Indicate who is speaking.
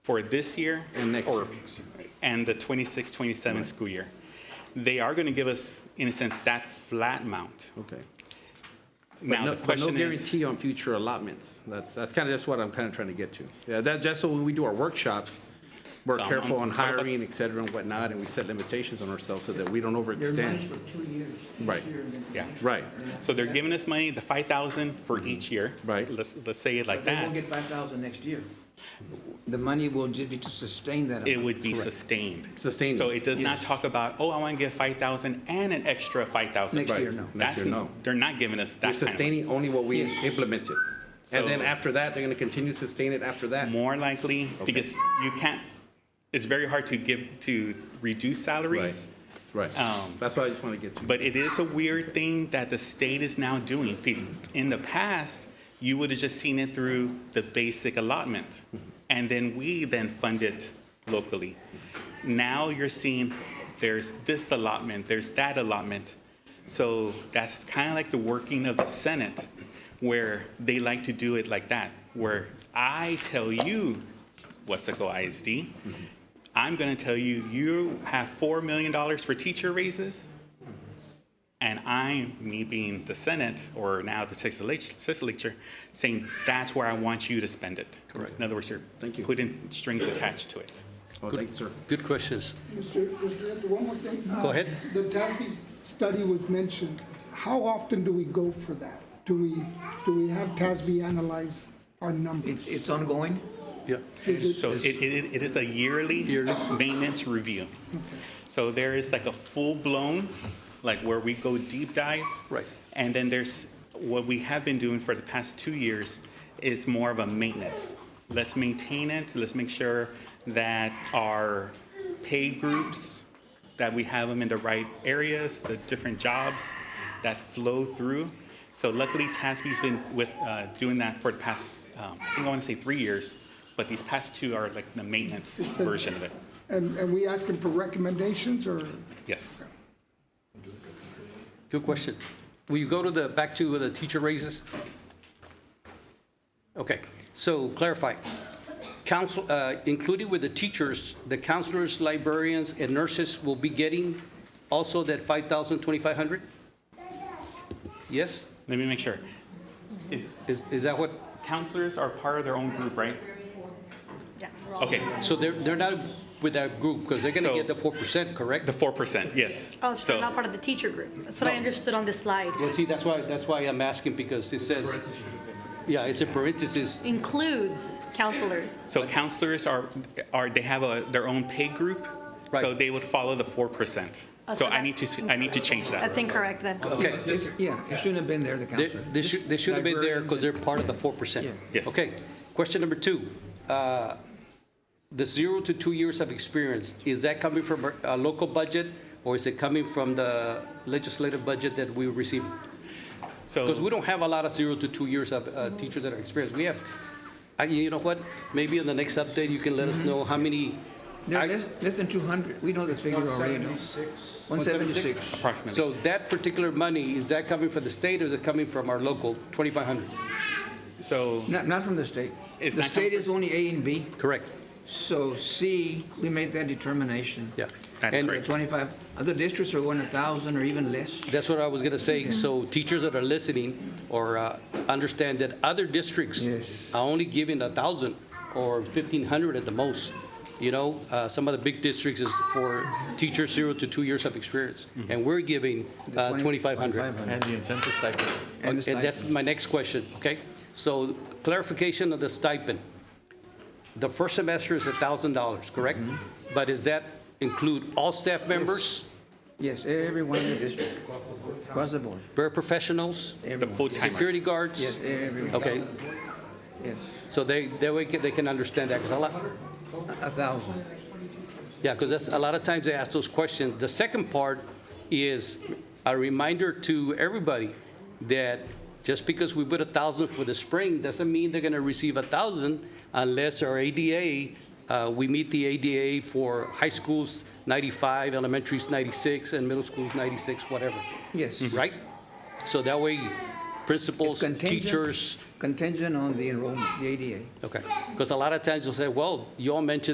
Speaker 1: for this year
Speaker 2: And next
Speaker 1: or-
Speaker 2: year.
Speaker 1: and the 26, 27 school year. They are going to give us, in a sense, that flat amount.
Speaker 2: Okay. But
Speaker 1: Now,
Speaker 2: no,
Speaker 1: the
Speaker 2: but no
Speaker 1: question is,
Speaker 2: guarantee on future allotments. That's, that's kind of, that's what I'm kind of trying to get to. Yeah, that, just so when we do our workshops, we're
Speaker 1: So I'm-
Speaker 2: careful
Speaker 1: I'm
Speaker 2: on
Speaker 1: talking about-
Speaker 2: hiring, et cetera, and whatnot, and we set limitations on ourselves so that we don't
Speaker 3: They're nice
Speaker 2: overextend.
Speaker 3: for two years. This
Speaker 2: Right.
Speaker 3: year and then the
Speaker 1: Yeah.
Speaker 3: next year.
Speaker 2: Right,
Speaker 1: so they're giving us money, the 5,000 for each year.
Speaker 2: Mm-hmm. Right.
Speaker 1: Let's, let's say it like
Speaker 3: But They won't
Speaker 1: that.
Speaker 3: get five thousand next year.
Speaker 4: The money will just be to sustain that
Speaker 1: It
Speaker 4: amount.
Speaker 1: would be
Speaker 2: Correct.
Speaker 1: sustained.
Speaker 2: Sustained.
Speaker 1: So it does not
Speaker 4: Yes.
Speaker 1: talk about, oh, I want to give 5,000 and an extra 5,000.
Speaker 4: Next
Speaker 2: Right.
Speaker 4: year, no.
Speaker 2: Next
Speaker 1: That's,
Speaker 2: year, no.
Speaker 1: they're not giving us
Speaker 2: We're
Speaker 1: that kind of money.
Speaker 2: sustaining only what we
Speaker 4: Yes.
Speaker 2: implemented. And then
Speaker 1: So-
Speaker 2: after that, they're going to continue to sustain it after that.
Speaker 1: More likely, because you can't, it's very hard to give, to reduce
Speaker 2: Right,
Speaker 1: salaries.
Speaker 2: right.
Speaker 1: Um,
Speaker 2: That's what I just want to get to.
Speaker 1: But it is a weird thing that the state is now doing. Because In the past, you would have just seen it through the basic allotment, and then we then fund it locally. Now you're seeing there's this allotment, there's that allotment. So that's kind of like the working of the Senate, where they like to do it like that, where I tell you, Wesco ISD, I'm going to tell you, you have $4 million for teacher raises, and I, me being the Senate, or now the Texas leg- legislature, saying that's where I want you to spend it.
Speaker 2: Correct.
Speaker 1: In other words, you're
Speaker 2: Thank you.
Speaker 1: putting strings attached to it.
Speaker 2: Oh, thanks, sir.
Speaker 5: Good questions.
Speaker 6: Mr. Mr. Director, one more thing.
Speaker 5: Go ahead.
Speaker 6: Uh, The Tasby study was mentioned. How often do we go for that? Do we, do we have Tasby analyze our
Speaker 3: It's,
Speaker 6: numbers?
Speaker 3: it's ongoing?
Speaker 5: Yeah.
Speaker 6: Is it-
Speaker 1: So it, it, it is a yearly
Speaker 5: Yearly.
Speaker 1: maintenance review. So there is like a full-blown, like where we go deep dive.
Speaker 5: Right.
Speaker 1: And then there's, what we have been doing for the past two years is more of a maintenance. Let's maintain it, let's make sure that our paid groups, that we have them in the right areas, the different jobs that flow through. So luckily, TASB's been with, uh, doing that for the past, um, I think I want to say three years, but these past two are like the maintenance version of it.
Speaker 6: And, and we ask them for recommendations or?
Speaker 1: Yes.
Speaker 5: Good question. Will you go to the, back to the teacher raises? Okay, so clarify. Council, uh, included with the teachers, the counselors, librarians, and nurses will be getting also that 5,000, 2,500? Yes?
Speaker 1: Let me make sure. Is,
Speaker 5: Is, is that what,
Speaker 1: counselors are part of their own group, right?
Speaker 7: Yeah.
Speaker 1: Okay,
Speaker 5: so they're, they're not with that group, because they're going
Speaker 1: So-
Speaker 5: to get the 4%, correct?
Speaker 1: the four percent, yes.
Speaker 7: Oh, so
Speaker 1: So-
Speaker 7: they're not part of the teacher group. That's what I understood on this slide.
Speaker 5: Well, see, that's why, that's why I'm asking, because it says, yeah, it's a parenthesis,
Speaker 7: Includes counselors.
Speaker 1: So counselors are, are, they have a, their own pay group, so
Speaker 5: Right.
Speaker 1: they would follow the four percent.
Speaker 7: Oh,
Speaker 1: So
Speaker 7: so
Speaker 1: I need
Speaker 7: that's-
Speaker 1: to, I need to change that.
Speaker 7: That's incorrect then.
Speaker 5: okay?
Speaker 4: It's- Yeah, it shouldn't have been there, the
Speaker 5: They,
Speaker 4: counselor.
Speaker 5: they should, they should have been there because they're part of the four percent.
Speaker 4: Yeah.
Speaker 1: Yes.
Speaker 5: Okay, question number two. Uh, The zero to two years of experience, is that coming from a- a local budget? Or is it coming from the legislative budget that we receive? Because we
Speaker 1: So,
Speaker 5: don't have a lot of zero to two years of uh, teachers that are experienced. We have, I, you know what? Maybe in the next update, you can let us know how many.
Speaker 4: There are
Speaker 5: I-
Speaker 4: less, less than 200, we know the figure already, no? 176.
Speaker 1: Approximately.
Speaker 5: So that particular money, is that coming from the state or is it coming from our local, 2,500?
Speaker 1: so,
Speaker 4: Not, not from the state.
Speaker 1: It's
Speaker 4: The
Speaker 1: not
Speaker 4: state is
Speaker 1: conference.
Speaker 4: only A and B,
Speaker 5: Correct,
Speaker 4: so C, we made that determination.
Speaker 5: yeah.
Speaker 1: That's
Speaker 5: And-
Speaker 1: correct.
Speaker 4: The 25, other districts are going 1,000 or even less.
Speaker 5: That's what I was going to say. So teachers that are listening or uh, understand that other districts
Speaker 4: Yes.
Speaker 5: are only giving 1,000 or 1,500 at the most. You know, uh, some of the big districts is for teachers zero to two years of experience. And we're giving
Speaker 4: Mm-hmm. The
Speaker 5: uh,
Speaker 4: 20
Speaker 5: 2,500.
Speaker 4: 2,500.
Speaker 8: And the incentive stipend.
Speaker 4: And
Speaker 5: And
Speaker 4: the stipend.
Speaker 5: that's my next question, okay? So clarification of the stipend. The first semester is $1,000, correct?
Speaker 4: Mm-hmm.
Speaker 5: But does that include all staff members,
Speaker 4: Yes, everyone in the district. Across the board.
Speaker 5: paraprofessionals,
Speaker 1: the
Speaker 4: everyone.
Speaker 1: full
Speaker 5: security
Speaker 1: timers.
Speaker 5: guards?
Speaker 4: Yes, everyone.
Speaker 5: Okay,
Speaker 4: Yes,
Speaker 5: so they, that way they can understand that, 'cause a lot,
Speaker 4: a 1,000.
Speaker 5: yeah, because that's, a lot of times they ask those questions. The second part is a reminder to everybody that just because we put a thousand for the spring, doesn't mean they're gonna receive a thousand unless our ADA, uh, we meet the ADA for high schools ninety-five, elementaries ninety-six, and middle schools ninety-six, whatever,
Speaker 4: Yes.
Speaker 5: right? So that way,
Speaker 4: It's
Speaker 5: principals,
Speaker 4: contingent-
Speaker 5: teachers.
Speaker 4: Contingent on the enrollment, the ADA.
Speaker 5: Okay, because a lot of times you'll say, well, you all mentioned